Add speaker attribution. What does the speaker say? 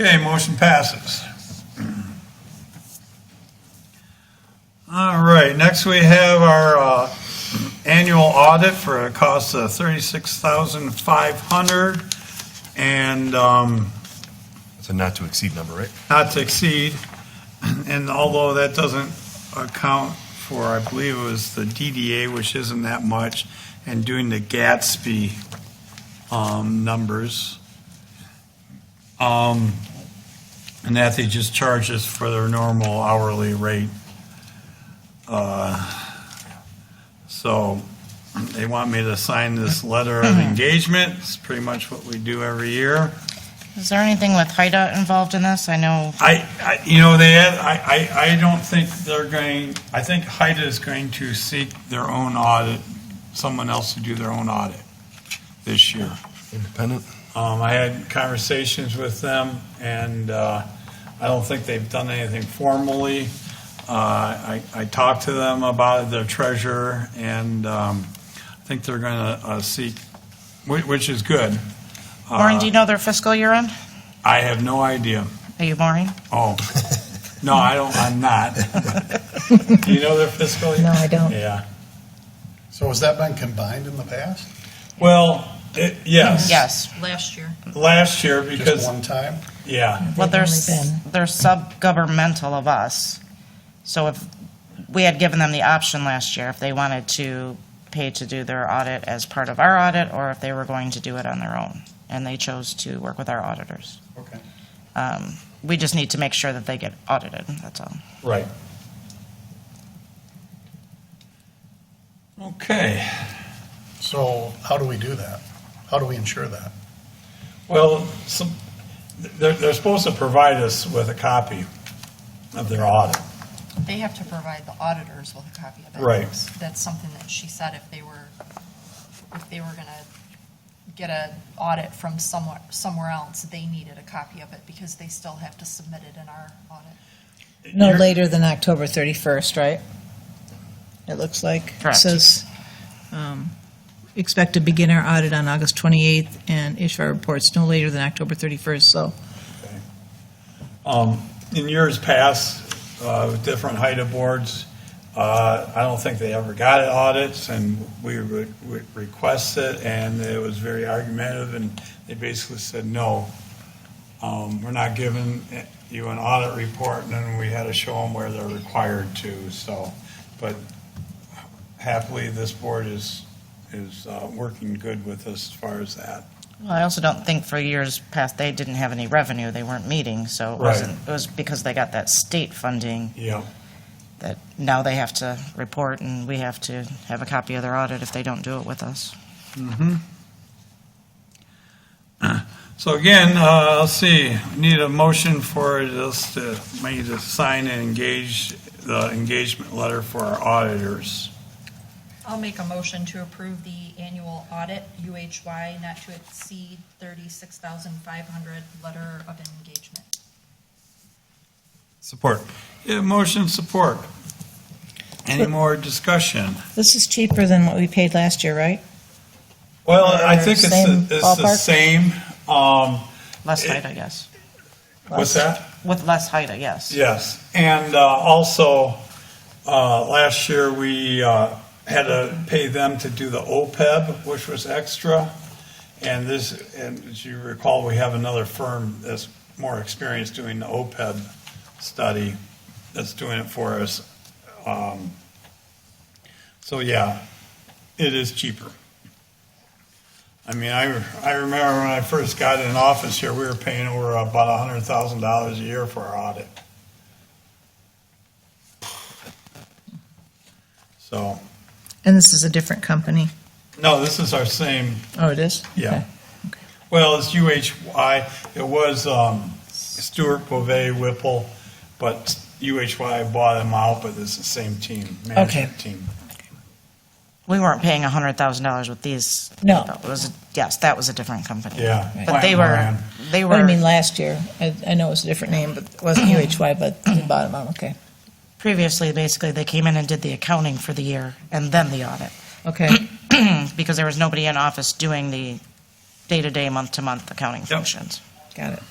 Speaker 1: Okay, motion passes. All right, next we have our uh, annual audit for a cost of $36,500 and um,
Speaker 2: It's a not to exceed number, right?
Speaker 1: not to exceed. And although that doesn't account for, I believe it was the DDA, which isn't that much, and doing the Gatsby um, numbers. Um, And that they just charge us for their normal hourly rate. Uh, So they want me to sign this letter of engagement. It's pretty much what we do every year.
Speaker 3: Is there anything with HIDA involved in this? I know,
Speaker 1: I, I, you know, they, had- I, I, I don't think they're going, I think HIDA is going to seek their own audit, someone else to do their own audit this year.
Speaker 2: Independent?
Speaker 1: Um, I had conversations with them, and, uh, I don't think they've done anything formally. Uh, I, I talked to them about their treasurer, and, um, I think they're gonna, uh, seek, which, which is good.
Speaker 3: Maureen, do you know their fiscal year end?
Speaker 1: I have no idea.
Speaker 3: Are you Maureen?
Speaker 1: Oh, no, I don't, I'm not. Do you know their fiscal year?
Speaker 4: No, I don't.
Speaker 1: Yeah.
Speaker 5: So has that been combined in the past?
Speaker 1: Well, it, yes.
Speaker 3: Yes.
Speaker 6: last year.
Speaker 1: Last year
Speaker 5: Just
Speaker 1: because,
Speaker 5: one time?
Speaker 1: yeah,
Speaker 3: Well,
Speaker 4: They've
Speaker 3: they're,
Speaker 4: only
Speaker 3: s-
Speaker 4: been-
Speaker 3: they're sub-governmental of us. So if, we had given them the option last year if they wanted to pay to do their audit as part of our audit or if they were going to do it on their own. And they chose to work with our auditors.
Speaker 5: Okay.
Speaker 3: Um, We just need to make sure that they get audited, that's all.
Speaker 1: right. Okay,
Speaker 5: So how do we do that? How do we ensure that?
Speaker 1: well, some, they're, they're supposed to provide us with a copy of their audit.
Speaker 6: They have to provide the auditors with a copy of it.
Speaker 1: Right.
Speaker 6: That's something that she said if they were, if they were gonna get a audit from somewhere, somewhere else, they needed a copy of it because they still have to submit it in our audit.
Speaker 4: No
Speaker 1: You're-
Speaker 4: later than October 31st, right? It looks like.
Speaker 3: Correct.
Speaker 4: It says, um, expect to begin our audit on August 28th and issue our reports no later than October 31st, so.
Speaker 1: Um, in years past, uh, with different HIDA boards, uh, I don't think they ever got audits, and we would would request it, and it was very argumentative, and they basically said, no, um, we're not giving you an audit report, and then we had to show them where they're required to, so, but happily, this board is, is uh, working good with us as far as that.
Speaker 3: Well, I also don't think for years past, they didn't have any revenue, they weren't meeting, so it
Speaker 1: Right.
Speaker 3: wasn't, it was because they got that state funding
Speaker 1: Yeah.
Speaker 3: that now they have to report and we have to have a copy of their audit if they don't do it with us.
Speaker 1: So again, uh, let's see, need a motion for this to, me to sign and engage the engagement letter for our auditors.
Speaker 6: I'll make a motion to approve the annual audit, UHY, not to exceed thirty-six thousand five hundred, letter of engagement.
Speaker 2: Support.
Speaker 1: Yeah, motion support. Any more discussion?
Speaker 4: This is cheaper than what we paid last year, right?
Speaker 1: Well, I think it's, the-
Speaker 4: Same
Speaker 1: it's the
Speaker 4: ballpark?
Speaker 1: same, um,
Speaker 3: Less
Speaker 1: It-
Speaker 3: height, I guess.
Speaker 1: what's that?
Speaker 3: With less height, I yes.
Speaker 1: Yes, and uh, also, uh, last year, we uh, had to pay them to do the OPEB, which was extra. And this, and as you recall, we have another firm that's more experienced doing the OPEB study that's doing it for us. Um, So, yeah, it is cheaper. I mean, I, I remember when I first got in office here, we were paying over about a hundred thousand dollars a year for our audit. So,
Speaker 4: And this is a different company.
Speaker 1: no, this is our same,
Speaker 4: Oh, it is?
Speaker 1: yeah.
Speaker 4: Okay.
Speaker 1: Well, it's UHY, it was, um, Stewart, Bovee, Whipple, but UHY bought them out, but it's the same team, management team.
Speaker 3: We weren't paying hundred thousand dollars with these.
Speaker 4: No.
Speaker 3: It was, yes, that was a different company.
Speaker 1: Yeah.
Speaker 3: But they
Speaker 1: Plant
Speaker 3: were,
Speaker 1: Moran.
Speaker 3: they
Speaker 4: But I mean,
Speaker 3: were,
Speaker 4: last year, I, I know it was a different name, but it wasn't UHY, but the bottom, oh, okay.
Speaker 3: previously, basically, they came in and did the accounting for the year and then the audit.
Speaker 4: Okay,
Speaker 3: Because there was nobody in office doing the day-to-day, month-to-month accounting functions.
Speaker 4: got it.